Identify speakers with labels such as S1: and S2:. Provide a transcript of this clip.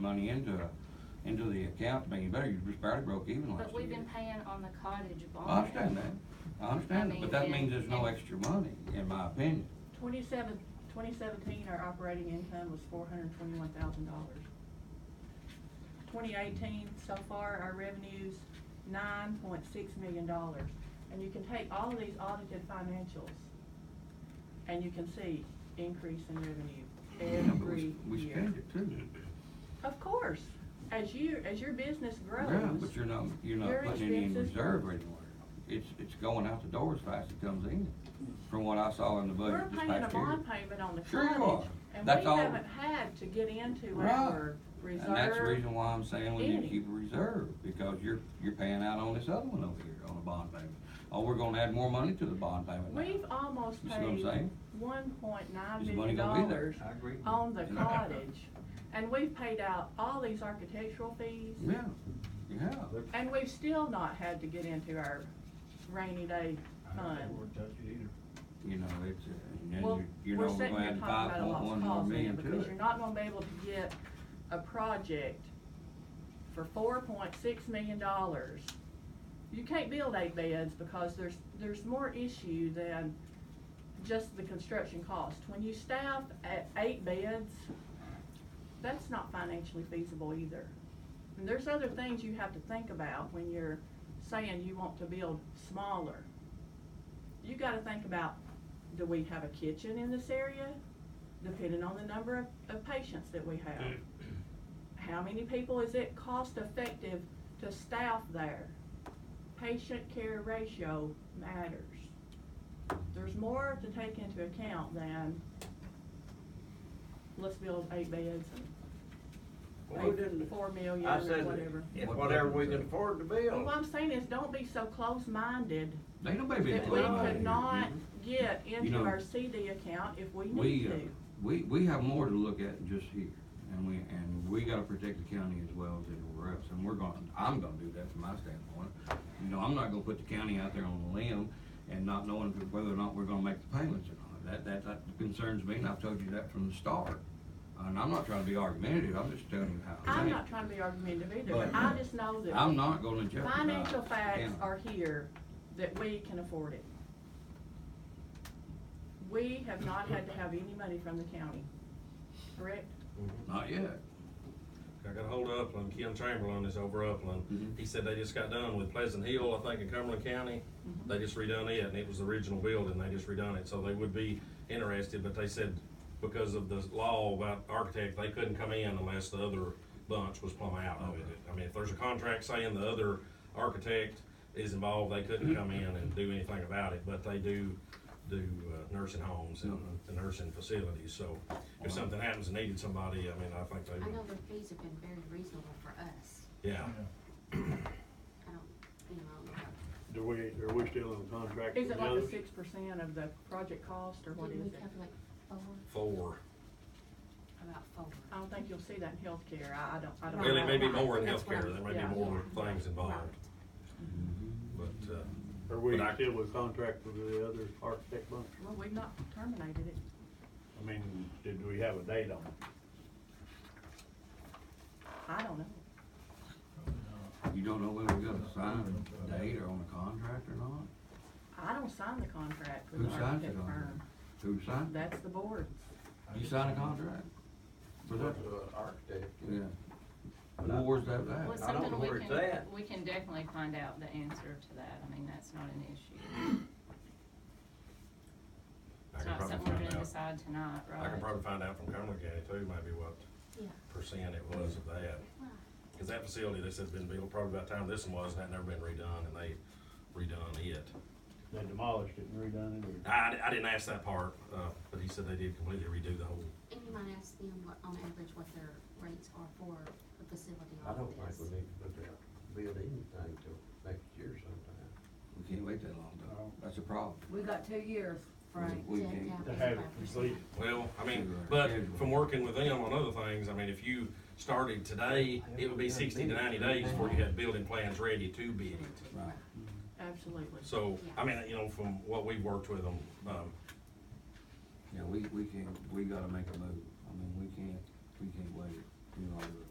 S1: money into, a- into the account to make it better, you just barely broke even last year.
S2: But we've been paying on the cottage bond.
S1: I understand that, I understand that, but that
S2: mean,
S1: means there's no
S2: and-
S1: extra money, in my opinion.
S3: Twenty-seven, twenty seventeen, our operating income was four hundred twenty-one thousand dollars. Twenty eighteen, so far, our revenues, nine point six million dollars. And you can take all of these audited financials, and you can see increase in
S1: Yeah,
S3: revenue
S1: but
S3: every year.
S1: we- We spend it too.
S3: Of course, as you, as your business grows.
S1: Yeah, but you're not, you're
S3: your
S1: not putting any in
S3: expenses-
S1: reserve or anywhere. It's, it's going out the door as fast as it comes in, from what I saw in the
S3: We're
S1: budget this
S3: paying a
S1: past year.
S3: bond payment on the
S1: Sure you
S3: cottage,
S1: are.
S3: and we
S1: That's all-
S3: haven't had to get into
S1: Right.
S3: our reserve.
S1: And that's the reason why I'm saying we need to
S3: any.
S1: keep a reserve, because you're, you're paying out on this other one over here, on the bond payment. Oh, we're gonna add more money to the bond payment now.
S3: We've almost
S1: You see what I'm
S3: paid
S1: saying?
S3: one point nine
S1: Is the money
S3: million
S1: gonna be there?
S3: dollars
S4: I agree.
S3: on the cottage, and we've paid out all these architectural fees,
S1: Yeah, you have.
S4: But
S3: and we've still not had to get into our rainy day
S4: I don't think we're
S3: fund.
S4: touching either.
S1: You know, it's, uh, and then
S3: Well,
S1: you- you
S3: we're
S1: know, we're
S3: sitting
S1: gonna
S3: here
S1: add
S3: talking about
S1: five
S3: a
S1: point one
S3: lost
S1: more
S3: cause there,
S1: million to
S3: because
S1: it.
S3: you're not gonna be able to get a project for four point six million dollars. You can't build eight beds because there's, there's more issue than just the construction cost. When you staff at eight beds, that's not financially feasible either. And there's other things you have to think about when you're saying you want to build smaller. You gotta think about, do we have a kitchen in this area? Depending on the number of, of patients that we have.
S5: Mm.
S3: How many people is it cost effective to staff there? Patient care ratio matters. There's more to take into account than, let's build eight beds
S5: Well, we
S3: and pay
S5: didn't-
S3: four million
S5: I
S3: or
S5: said,
S3: whatever.
S5: if whatever we can afford to
S3: Well,
S5: build.
S3: What I'm saying is, don't be so close-minded
S1: They don't pay big
S3: that we
S1: money.
S3: could not get
S1: You
S3: into
S1: know,
S3: our CD account if we need
S1: We, uh,
S3: to.
S1: we, we have more to look at than just here, and we, and we gotta protect the county as well as everywhere else, and we're gonna, I'm gonna do that from my standpoint. You know, I'm not gonna put the county out there on a limb and not knowing whether or not we're gonna make the payments or not. That, that, that concerns me, and I've told you that from the start, and I'm not trying to be argumentative, I'm just telling you how. I
S3: I'm
S1: think.
S3: not trying to be argumentative either,
S1: But-
S3: but I just know that.
S1: I'm not gonna jeopardize.
S3: Financial
S1: the
S3: facts
S1: county.
S3: are here that we can afford it. We have not had to have any money from the county, correct?
S1: Not yet.
S6: I got a hold of Upland, Kim Chamberlain is over
S7: Mm-hmm.
S6: Upland.
S1: Mhm.
S6: He said they just got done with Pleasant Hill, I think in Cumberland County.
S7: Mm-hmm.
S6: They just redone it, and it was the original building, they just redone it, so they would be interested, but they said because of the law about architect, they couldn't come in unless the other bunch was plumb out of it. I mean, if there's a contract saying the other architect is involved, they couldn't come in and do anything about it, but they do, do uh, nursing homes and
S7: Mm-hmm.
S6: and nursing facilities, so if something happens and needed somebody, I mean, I think they
S7: I
S6: would.
S7: know their fees have been very reasonable for us.
S6: Yeah,
S7: I don't, you know, I don't know about-
S4: Do we, are we still in contract?
S3: Is
S4: with
S3: it like
S4: the
S3: the
S4: others?
S3: six percent of the project cost or what
S7: didn't we
S3: is it?
S7: cover like four,
S6: four.
S7: about four?
S3: I don't think you'll see that in healthcare, I, I don't, I don't.
S6: Well, it
S3: know.
S6: may be more in
S7: That's what I'm-
S6: healthcare, there may
S3: yeah.
S6: be more
S7: Yeah.
S6: things involved, but, uh,
S4: Are we
S6: But I-
S4: still with contract with the other architect bunch?
S3: Well, we've not terminated it.
S4: I mean, did we have a date on it?
S3: I don't know.
S1: You don't know whether we got a signed date or on a contract or not?
S3: I don't sign the contract with
S1: Who
S3: the
S1: signs it
S3: architect
S1: on
S3: firm.
S1: there? Who signed? it?
S3: That's the board.
S1: You signed a contract? For that?
S4: Architect.
S1: Yeah. Well, where's that
S2: Well, it's
S1: at?
S5: I don't
S2: something
S5: know
S2: we
S5: where it's
S2: can,
S5: at.
S2: we can definitely find out the answer to that, I mean, that's not an issue.
S6: I
S2: It's
S6: can
S2: not
S6: probably
S2: something we're
S6: find
S2: gonna
S6: out.
S2: decide tonight, right?
S6: I can probably find out from Cumberland County too, maybe what
S7: Yeah.
S6: percent it was of that.
S7: Right.
S6: Cause that facility, they said has been built probably about the time this one was, and that never been redone, and they redone it.
S4: They demolished it and redone it, or?
S6: I, I didn't ask that part, uh, but he said they did completely redo the whole,
S7: And you might ask them what, on average, what their rates are for a facility
S5: I
S7: like
S5: don't
S7: this.
S5: think we need to put that, build anything till next year sometime.
S1: We can't wait that long, though. That's a problem.
S8: We got two years, Frank.
S1: We
S7: Yeah,
S1: can't.
S7: yeah,
S4: To have it
S7: 55%.
S4: completed.
S6: well, I mean,
S1: Sure,
S6: but
S1: schedule.
S6: from working with them on other things, I mean, if you started today, it would be sixty to ninety days before you had building plans ready to bid it.
S1: Right.
S3: Absolutely.
S6: So, I mean, you know, from what we've worked with them, um,
S1: Yeah, we, we can't, we gotta make a move. I mean, we can't, we can't wait any longer.